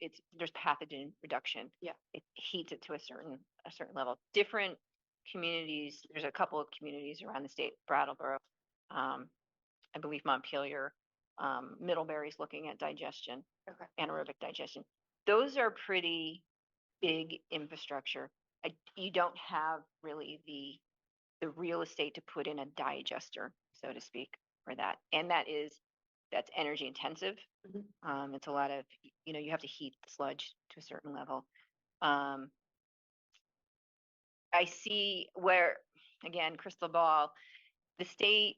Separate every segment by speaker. Speaker 1: it's, there's pathogen reduction.
Speaker 2: Yeah.
Speaker 1: It heats it to a certain, a certain level. Different communities, there's a couple of communities around the state, Brattleboro, um, I believe Montpelier, um, Middlebury's looking at digestion.
Speaker 2: Okay.
Speaker 1: Anaerobic digestion. Those are pretty big infrastructure. I, you don't have really the, the real estate to put in a digester, so to speak, for that. And that is, that's energy intensive.
Speaker 2: Mhm.
Speaker 1: Um, it's a lot of, y- you know, you have to heat the sludge to a certain level. Um, I see where, again, crystal ball, the state,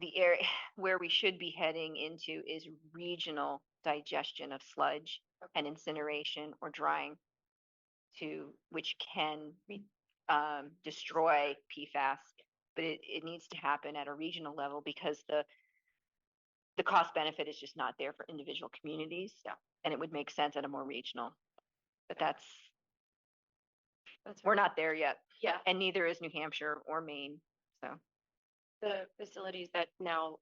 Speaker 1: the area where we should be heading into is regional digestion of sludge and incineration or drying to, which can re- um, destroy PFAS. But it, it needs to happen at a regional level because the, the cost benefit is just not there for individual communities.
Speaker 2: Yeah.
Speaker 1: And it would make sense at a more regional. But that's,
Speaker 2: That's
Speaker 1: we're
Speaker 2: right.
Speaker 1: not there yet,
Speaker 2: Yeah,
Speaker 1: and neither is New Hampshire or Maine, so.
Speaker 2: the facilities that now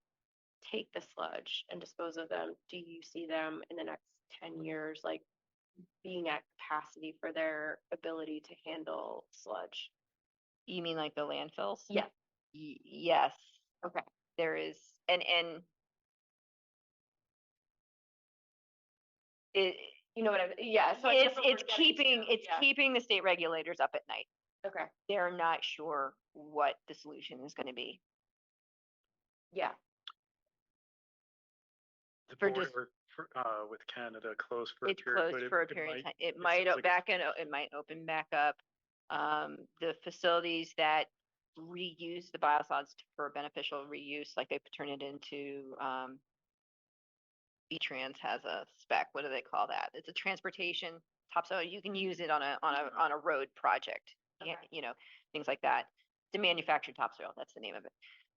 Speaker 2: take the sludge and dispose of them, do you see them in the next ten years, like being at capacity for their ability to handle sludge?
Speaker 1: You mean like the landfills?
Speaker 2: Yeah.
Speaker 1: Y- yes.
Speaker 2: Okay.
Speaker 1: There is, and, and it,
Speaker 2: You know what I, yeah, so. I guess
Speaker 1: it's,
Speaker 2: what
Speaker 1: it's
Speaker 2: we're getting
Speaker 1: keeping,
Speaker 2: to,
Speaker 1: it's
Speaker 2: yeah,
Speaker 1: keeping the state regulators up at night.
Speaker 2: Okay,
Speaker 1: They're not sure what the solution is gonna be.
Speaker 2: yeah,
Speaker 3: The
Speaker 1: for
Speaker 3: border
Speaker 1: just-
Speaker 3: for- for, uh, with Canada closed for a
Speaker 1: It's
Speaker 3: period.
Speaker 1: closed
Speaker 3: but
Speaker 1: for a
Speaker 3: it- it
Speaker 1: period of
Speaker 3: might-
Speaker 1: time. It
Speaker 3: it
Speaker 1: might,
Speaker 3: seems
Speaker 1: o-
Speaker 3: like it's-
Speaker 1: back and, it might open back up. Um, the facilities that reuse the biosolids for beneficial reuse, like they turn it into, um, B-Trans has a spec, what do they call that? It's a transportation topsoil, you can use it on a, on a, on a road project. Yeah,
Speaker 2: Mm-hmm. Okay.
Speaker 1: you know, things like that. The manufactured topsoil, that's the name of it.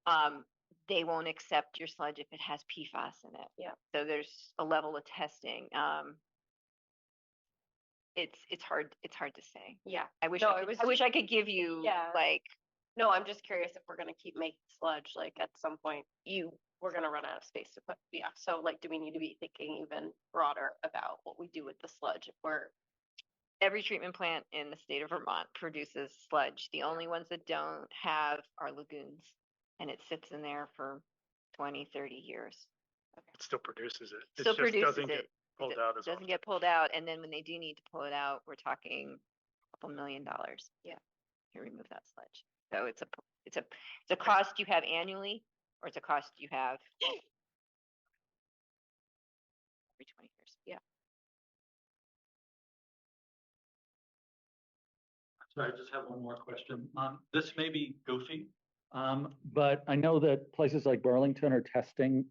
Speaker 1: Um, they won't accept your sludge if it has PFAS in it.
Speaker 2: Yeah.
Speaker 1: So there's a level of testing, um. It's, it's hard, it's hard to say.
Speaker 2: yeah.
Speaker 1: I wish,
Speaker 2: No,
Speaker 1: I
Speaker 2: it
Speaker 1: could-
Speaker 2: was
Speaker 1: I
Speaker 2: ju-
Speaker 1: wish I could give you,
Speaker 2: Yeah.
Speaker 1: like,
Speaker 2: No, I'm just curious if we're gonna keep making sludge, like at some point,
Speaker 1: you,
Speaker 2: we're gonna run out of space to put, yeah, so like, do we need to be thinking even broader about what we do with the sludge if we're
Speaker 1: every treatment plant in the state of Vermont produces sludge. The only ones that don't have are lagoons. And it sits in there for 20, 30 years.
Speaker 3: It still produces it. It
Speaker 1: Still
Speaker 3: just
Speaker 1: produces
Speaker 3: doesn't
Speaker 1: it.
Speaker 3: get pulled
Speaker 1: d-
Speaker 3: out as
Speaker 1: Doesn't
Speaker 3: often.
Speaker 1: get pulled out. And then when they do need to pull it out, we're talking a couple million dollars.
Speaker 2: Yeah.
Speaker 1: To remove that sludge. So it's a, p- it's a, it's a cost you have annually or it's a cost you have every twenty years.
Speaker 4: Sorry, I just have one more question. Um, this may be goofy. Um, but I know that places like Burlington are testing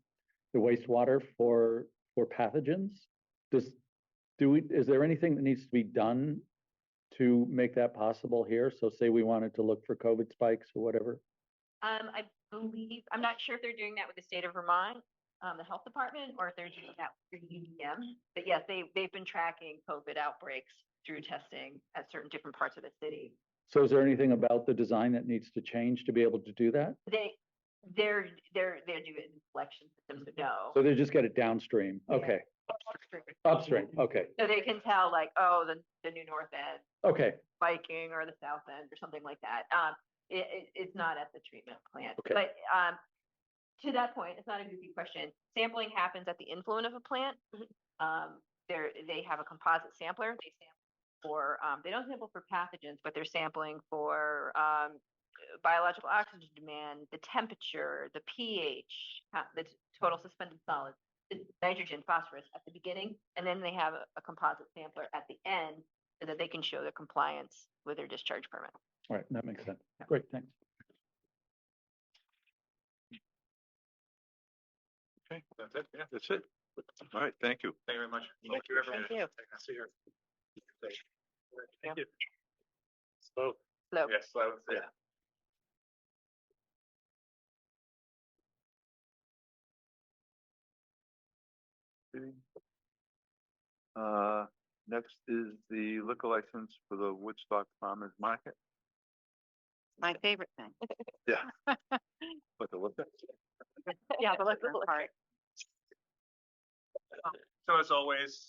Speaker 4: the wastewater for, for pathogens. Does, do we, is there anything that needs to be done to make that possible here? So say we wanted to look for COVID spikes or whatever.
Speaker 1: Um, I believe, I'm not sure if they're doing that with the state of Vermont, um, the health department, or if they're doing that through UVM. But yes, they, they've been tracking COVID outbreaks through testing at certain different parts of the city.
Speaker 4: So is there anything about the design that needs to change to be able to do that?
Speaker 1: They, they're, they're, they're doing collection systems to know.
Speaker 4: So they just get it downstream?
Speaker 1: Yeah.
Speaker 4: Okay, upstream, okay,
Speaker 1: So they can tell like, oh, the, the new north end
Speaker 4: okay.
Speaker 1: biking or the south end or something like that. Um, it, it, it's not at the treatment plant.
Speaker 4: Okay.
Speaker 1: But, um, to that point, it's not a goofy question. Sampling happens at the influent of a plant. Um, they're, they have a composite sampler. They sample for, um, they don't sample for pathogens, but they're sampling for, um, biological oxygen demand, the temperature, the pH, uh, the t- total suspended solids, the nitrogen, phosphorus at the beginning, and then they have a, a composite sampler at the end so that they can show their compliance with their discharge permit.
Speaker 4: All right, that makes sense. Great, thanks.
Speaker 3: Okay, that's it, yeah, that's it.
Speaker 5: All right, thank you.
Speaker 3: Thank you very much.
Speaker 5: Thank
Speaker 3: you,
Speaker 1: everyone. Thank you.
Speaker 3: See you.
Speaker 1: Yeah.
Speaker 3: Thank you. Slow.
Speaker 1: So
Speaker 3: Yes, slow, yeah.
Speaker 5: Uh, next is the liquor license for the Woodstock Farmers Market.
Speaker 6: My favorite thing.
Speaker 5: What the, what the-
Speaker 1: Yeah, but let's,
Speaker 6: Favorite part.
Speaker 7: So as always,